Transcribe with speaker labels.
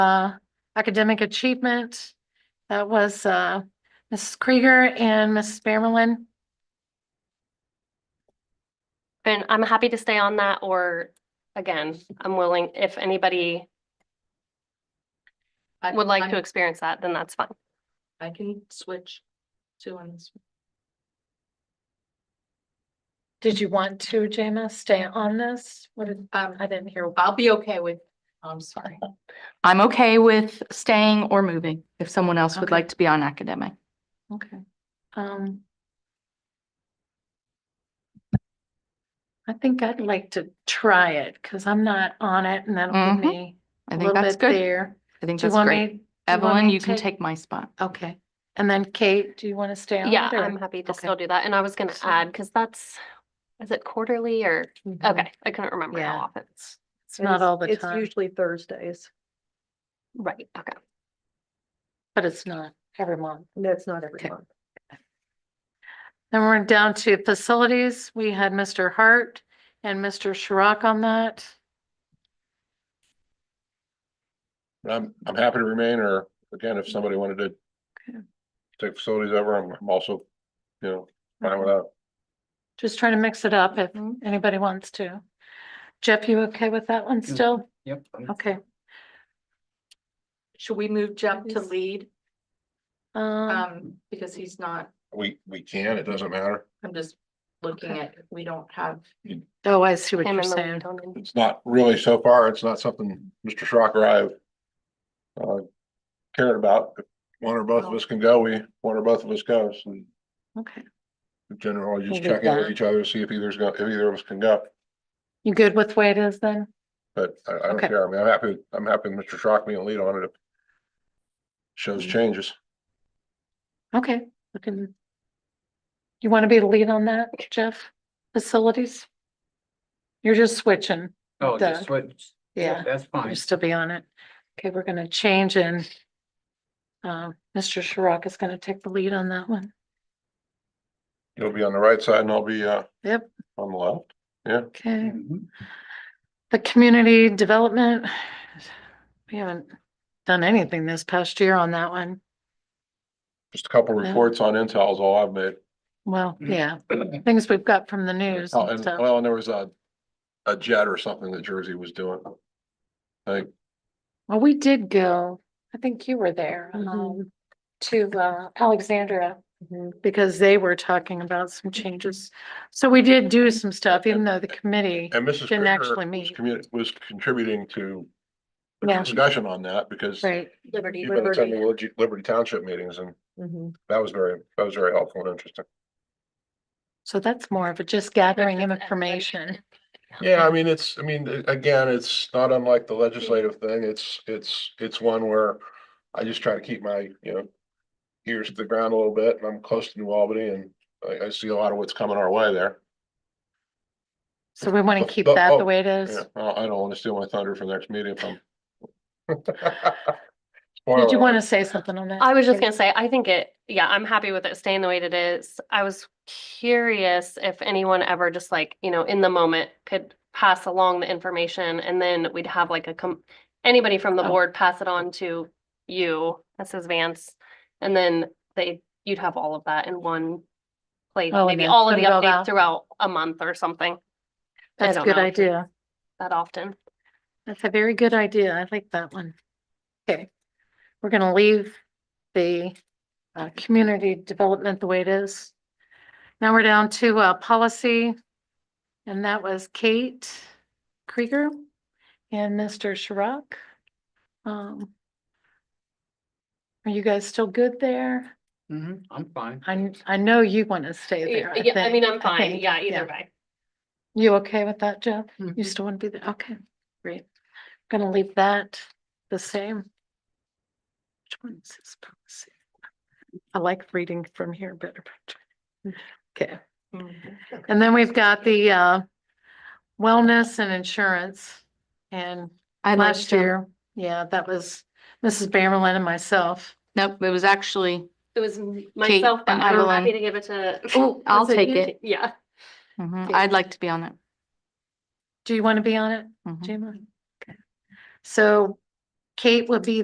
Speaker 1: uh, academic achievement. That was, uh, Mrs. Krieger and Mrs. Bermelin.
Speaker 2: And I'm happy to stay on that, or again, I'm willing, if anybody
Speaker 3: I-
Speaker 2: would like
Speaker 3: I'm-
Speaker 2: to experience that, then that's fine.
Speaker 3: I can switch to on this. one.
Speaker 1: Did you want to, Jamis, stay on this? What did, um, I didn't hear.
Speaker 3: I'll be okay with, oh, I'm sorry.
Speaker 4: I'm okay with staying or moving if someone else would
Speaker 1: Okay.
Speaker 4: like to be on academic.
Speaker 1: Okay. Um. I think I'd like to try it because I'm not on it and that'll
Speaker 4: Mhm.
Speaker 1: give me
Speaker 4: I
Speaker 1: a
Speaker 4: think
Speaker 1: little
Speaker 4: that's
Speaker 1: bit
Speaker 4: good.
Speaker 1: there.
Speaker 4: I think
Speaker 1: Do you
Speaker 4: that's
Speaker 1: want
Speaker 4: great.
Speaker 1: me? do want
Speaker 4: Evelyn,
Speaker 1: me
Speaker 4: you
Speaker 1: to
Speaker 4: can
Speaker 1: take-
Speaker 4: take my spot.
Speaker 1: Okay. And then Kate, do you want to stay on it?
Speaker 2: Yeah,
Speaker 1: or-
Speaker 2: I'm happy to
Speaker 1: okay.
Speaker 2: still do that. And I was gonna add,
Speaker 1: Excellent.
Speaker 2: because that's, is it quarterly or,
Speaker 1: Mhm.
Speaker 2: okay, I couldn't remember how
Speaker 1: Yeah.
Speaker 2: often it's.
Speaker 1: It's not all the
Speaker 5: Mm-hmm. It's
Speaker 1: time,
Speaker 5: usually Thursdays.
Speaker 2: Right, okay.
Speaker 1: but it's not every month.
Speaker 5: That's not every
Speaker 1: Okay.
Speaker 5: month.
Speaker 1: Then we're down to facilities. We had Mr. Hart and Mr. Shrock on that.
Speaker 6: I'm, I'm happy to remain, or again, if somebody wanted to take facilities over, I'm I'm also, you know, fine with that.
Speaker 1: Just trying to mix it up if
Speaker 4: Mhm.
Speaker 1: anybody wants to. Jeff, you okay with that one still?
Speaker 7: Yep. I'm-
Speaker 1: Okay.
Speaker 3: Should we move Jeff to
Speaker 1: Yes.
Speaker 3: lead?
Speaker 1: Um,
Speaker 3: Um, because he's not,
Speaker 6: We, we can, it doesn't matter.
Speaker 3: I'm just looking at, we don't have,
Speaker 1: oh, I see what
Speaker 2: Him
Speaker 1: you're
Speaker 2: and the
Speaker 1: saying.
Speaker 2: lead on it.
Speaker 6: It's not really so far, it's not something Mr. Schrock or I have uh, cared about. If One or both of us can go, we, one or both of us goes, and
Speaker 1: Okay.
Speaker 6: generally just
Speaker 1: We'll do
Speaker 6: check in with
Speaker 1: that.
Speaker 6: each other, see if either's go, if either of us can go.
Speaker 1: You good with the way it is then?
Speaker 6: But I, I don't
Speaker 1: Okay.
Speaker 6: care, I mean, I'm happy, I'm happy with Mr. Schrock being lead on it. if Shows
Speaker 1: Mm-hmm.
Speaker 6: changes.
Speaker 1: Okay, we can. You want to be the lead on that, Jeff? Facilities? You're just switching.
Speaker 7: Oh,
Speaker 1: Duh.
Speaker 7: just switch.
Speaker 1: Yeah,
Speaker 7: That's fine.
Speaker 1: you still be on it. Okay, we're gonna change and um, Mr. Shrock is gonna take the lead on that one.
Speaker 6: You'll be on the right side and I'll be, uh,
Speaker 1: Yep.
Speaker 6: on the left.
Speaker 1: Okay,
Speaker 7: Mhm.
Speaker 1: the community development. We haven't done anything this past year on that one.
Speaker 6: Just a couple
Speaker 1: Yeah.
Speaker 6: reports on Intel is all I've made.
Speaker 1: Well, yeah, things we've got from the news
Speaker 6: Mm. Oh,
Speaker 1: and
Speaker 6: and,
Speaker 1: stuff.
Speaker 6: well, and there was a, a jet or something that Jersey was doing. I think
Speaker 1: Well, we did go, I think you were there,
Speaker 5: Mhm.
Speaker 1: um, to uh, Alexandria. Because they were talking about some changes. So we did do some stuff, even though the committee.
Speaker 6: and Mrs.
Speaker 1: Didn't
Speaker 6: Krieger
Speaker 1: actually
Speaker 6: was
Speaker 1: meet.
Speaker 6: commu- was contributing to the
Speaker 1: Yeah.
Speaker 6: discussion on that because
Speaker 1: Right,
Speaker 3: Liberty.
Speaker 6: you've been attending Lib- Liberty Township meetings and
Speaker 5: Mhm.
Speaker 6: that was very, that was very helpful and interesting.
Speaker 1: so that's more of a just gathering information.
Speaker 6: Yeah, I mean, it's, I mean, a- again, it's not unlike the legislative thing. It's, it's, it's one where I just try to keep my, you know, ears to the ground a little bit and I'm close to New Albany and I, I see a lot of what's coming our way there.
Speaker 1: So we want
Speaker 6: Oh,
Speaker 1: to keep
Speaker 6: oh,
Speaker 1: that the
Speaker 6: oh,
Speaker 1: way it is.
Speaker 6: Yeah, well, I don't want to steal my thunder for the next meeting if I'm.
Speaker 1: Did you
Speaker 6: Spoiler
Speaker 1: want to
Speaker 6: alert.
Speaker 1: say something on that?
Speaker 2: I was just
Speaker 1: Kate?
Speaker 2: gonna say, I think it, yeah, I'm happy with it staying the way it is. I was curious if anyone ever just like, you know, in the moment could pass along the information and then we'd have like a com- anybody from the
Speaker 1: Oh.
Speaker 2: board pass it on to you, Mrs. Vance. And then they, you'd have all of that in one place,
Speaker 1: Oh, and
Speaker 2: maybe
Speaker 1: then
Speaker 2: all of
Speaker 1: put
Speaker 2: the
Speaker 1: it all out.
Speaker 2: updates throughout a month or something I
Speaker 1: That's a
Speaker 2: don't
Speaker 1: good
Speaker 2: know.
Speaker 1: idea.
Speaker 2: that often.
Speaker 1: That's a very good idea. I like that one. Okay, we're gonna leave the uh community development the way it is. Now we're down to uh policy. And that was Kate Krieger and Mr. Shrock. Um. Are you guys still good there?
Speaker 7: Mhm. I'm fine.
Speaker 1: I kn- I know you want to stay there.
Speaker 2: Yeah, I mean,
Speaker 1: think.
Speaker 2: I'm fine.
Speaker 1: think,
Speaker 2: Yeah,
Speaker 1: yeah.
Speaker 2: either way.
Speaker 1: You okay with that, Jeff? You
Speaker 4: Mhm.
Speaker 1: still want to be there? Okay, great. Gonna leave that the same. Which one is this policy? I like reading from here better. but- Okay, and then we've got the uh wellness and insurance. And
Speaker 4: I'd like
Speaker 1: last
Speaker 4: to-
Speaker 1: year, yeah, that was Mrs. Bamerlin and myself.
Speaker 4: Nope, it was actually,
Speaker 2: It was myself, but
Speaker 4: and
Speaker 2: I'm happy
Speaker 4: Evelyn.
Speaker 2: to give it to.
Speaker 4: Oh, I'll
Speaker 2: Was
Speaker 4: take
Speaker 2: you?
Speaker 4: it.
Speaker 2: Yeah.
Speaker 4: mhm,
Speaker 1: Yeah.
Speaker 4: I'd like to be on it.
Speaker 1: Do you want to be on it,
Speaker 4: Mhm.
Speaker 1: Jima? Okay. So Kate would be